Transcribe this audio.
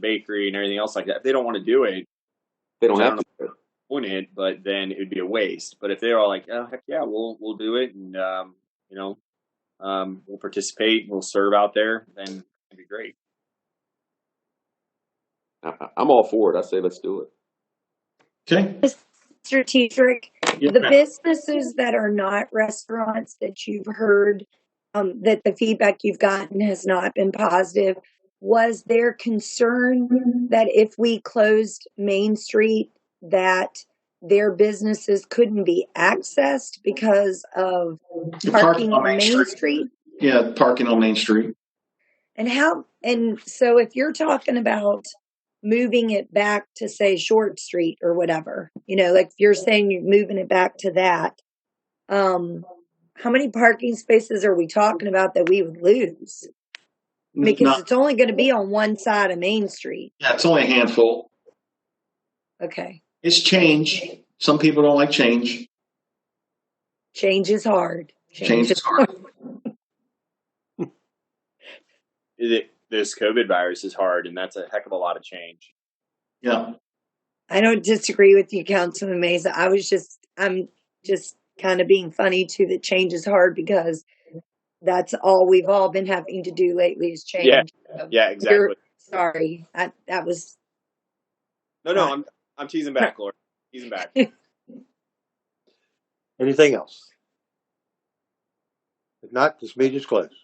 bakery and everything else like that. If they don't want to do it, They don't I have don't to. own it, but then it would be a waste. But if they're all like, oh, heck yeah, we'll we'll do it, and um, you know, um, we'll participate, we'll serve out there, then it'd be great. I, I- I'm all for it. I say let's do it. Okay. strategic. Yeah. The businesses that are not restaurants that you've heard um, that the feedback you've gotten has not been positive, was there concern that if we closed Main Street, that their businesses couldn't be accessed because of The parking on Main Street? Yeah, parking on Main Street. And how, and so if you're talking about moving it back to say Short Street or whatever, you know, like if you're saying you're moving it back to that, um, how many parking spaces are we talking about that we would lose? Because Not- it's only going to be on one side of Main Street. yeah, it's only a handful. Okay. It's change. Some people don't like change. Change is hard. Change is hard. It, this COVID virus is hard, and that's a heck of a lot of change. Yeah. I don't disagree with you, Councilman Mesa. I was just, I'm just kind of being funny too. That change is hard because that's all we've all been having to do lately is change. Yeah, Yeah, exactly. You're- Sorry, I, that was no, no, I'm I'm teasing back, Lord. Teasing back. Anything else? If not, this meeting is closed.